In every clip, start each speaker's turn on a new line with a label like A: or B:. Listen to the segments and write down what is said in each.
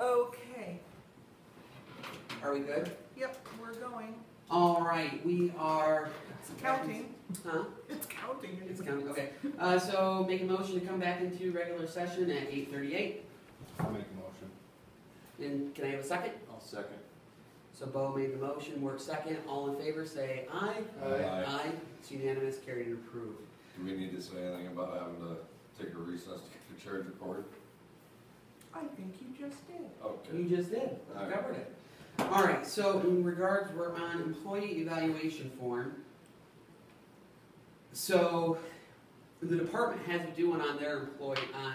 A: Okay,
B: Are we good?
A: yep, we're going.
B: All right, we are.
A: It's counting,
B: Huh?
A: it's counting.
B: It's counting, okay. Uh, so make a motion to come back into regular session at eight thirty-eight.
C: I'll make a motion.
B: And can I have a second?
C: I'll second.
B: So Bo made the motion, Work second, all in favor, say aye.
C: Aye.
B: It's unanimous, carried and approved.
D: Do we need to say anything about having to take a recess to get the charge recorded?
A: I think you just did.
D: Okay.
B: You just did, I
D: All right.
B: covered it. All right, so in regards, we're on employee evaluation form. So the department has to do one on their employee, on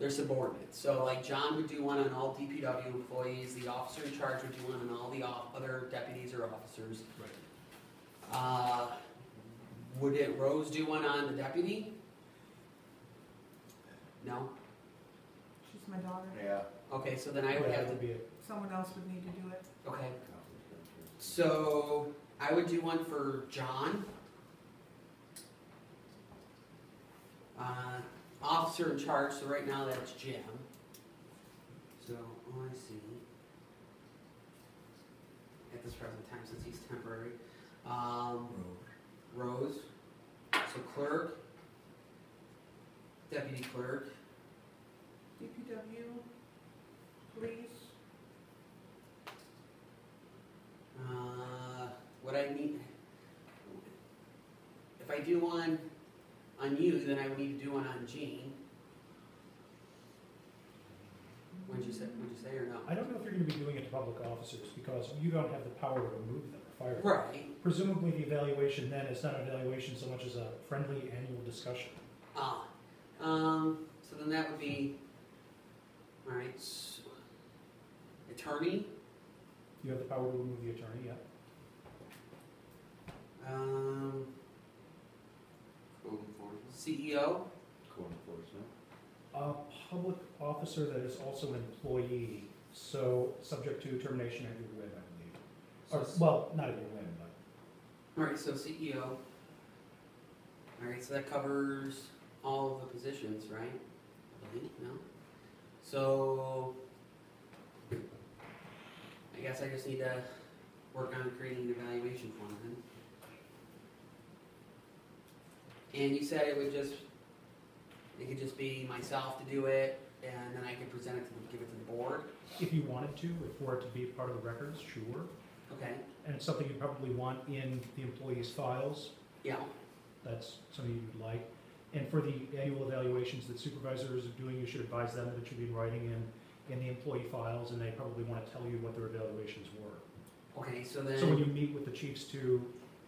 B: their subordinates. So like John would do one on all DPW employees, the officer in charge would do one on all the off- other deputies or officers.
C: Right.
B: Uh, would it, Rose do one on the deputy? No?
A: She's my daughter.
C: Yeah.
B: Okay, so then I would have to,
C: be
A: Someone else would need to do it.
B: okay. So I would do one for John. Uh, officer in charge, so right now that's Jim. So, oh, I see. At this present time, since he's temporary. Um, Rose, so clerk, deputy clerk,
A: DPW, police,
B: Uh, what I need, if I do one on you, then I would need to do one on Jean. Would you say, would you say or no?
E: I don't know if you're gonna be doing it to public officers, because you don't have the power to remove them or fire them.
B: Right,
E: Presumably, the evaluation then is not an evaluation so much as a friendly annual discussion.
B: ah, um, so then that would be, alright, s- attorney,
E: You have the power to remove the attorney, yeah?
B: um, E
D: Code enforcement?
B: CEO,
C: Code enforcement.
E: A public officer that is also an employee, so subject to termination at your whim, I believe. Or, well, not at your whim, but
B: alright, so E CEO. Alright, so that covers all of the positions, right? I believe, no? So, I guess I just need to work on creating an evaluation form then. And you said it would just, it could just be myself to do it, and then I could present it to, the- give it to the board,
E: if you wanted to, if for it to be part of the records, sure.
B: okay?
E: And it's something you probably want in the employee's files,
B: Yeah,
E: that's something you'd like. And for the annual evaluations that supervisors are doing, you should advise them that it should be in writing in, in the employee files, and they probably want to tell you what their evaluations were.
B: okay, so then.
E: So when you meet with the chiefs to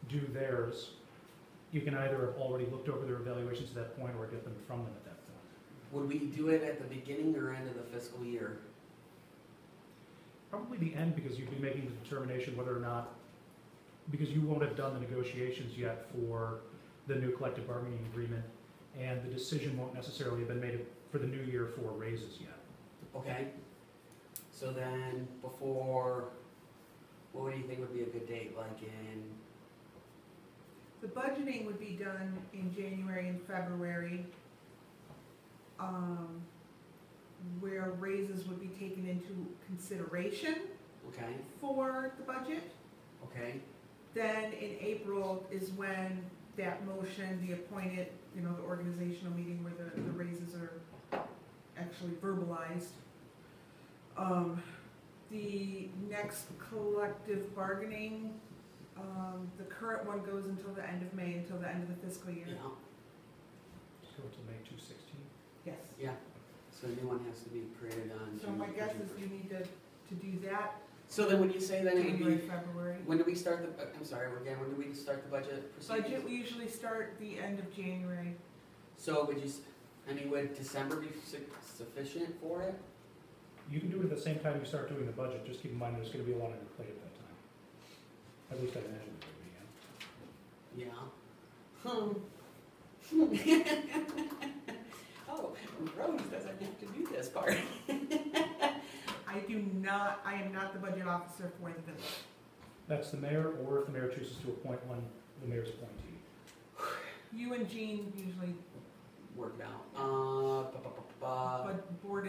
E: do theirs, you can either have already looked over their evaluations at that point, or get them from them at that point.
B: Would we do it at the beginning or end of the fiscal year?
E: Probably the end, because you'd be making the determination whether or not, because you won't have done the negotiations yet for the new collective bargaining agreement, and the decision won't necessarily have been made for the new year for raises yet.
B: Okay. So then before, what do you think would be a good date, like in,
A: The budgeting would be done in January and February, um, where raises would be taken into consideration
B: okay,
A: for the budget.
B: okay,
A: Then in April is when that motion, the appointed, you know, the organizational meeting where the, the raises are actually verbalized. Um, the next collective bargaining, um, the current one goes until the end of May, until the end of the fiscal year.
B: yeah,
E: Go to May two sixteen.
A: Yes.
B: so a new one has to be created on.
A: So my
B: June-
A: guess
B: June
A: is
B: first.
A: you need to, to do that
B: So then when you say that, it would
A: January,
B: be,
A: February.
B: when do we start the, uh, I'm sorry, again, when do we start the budget procedures?
A: Budget, we usually start the end of January.
B: So would you, s- I mean, would December be su- sufficient for it?
E: You can do it at the same time you start doing the budget, just keep in mind there's gonna be a lot on your plate at that time. At least I imagine there would be, yeah.
B: Yeah. Hmm. Oh, Rose doesn't have to do this part.
A: I do not, I am not the budget officer for the village.
E: That's the mayor, or if the mayor chooses to appoint one, the mayor's appointee.
A: You and Jean usually,
B: Work it out. Uh, ba, ba, ba, ba.
A: but board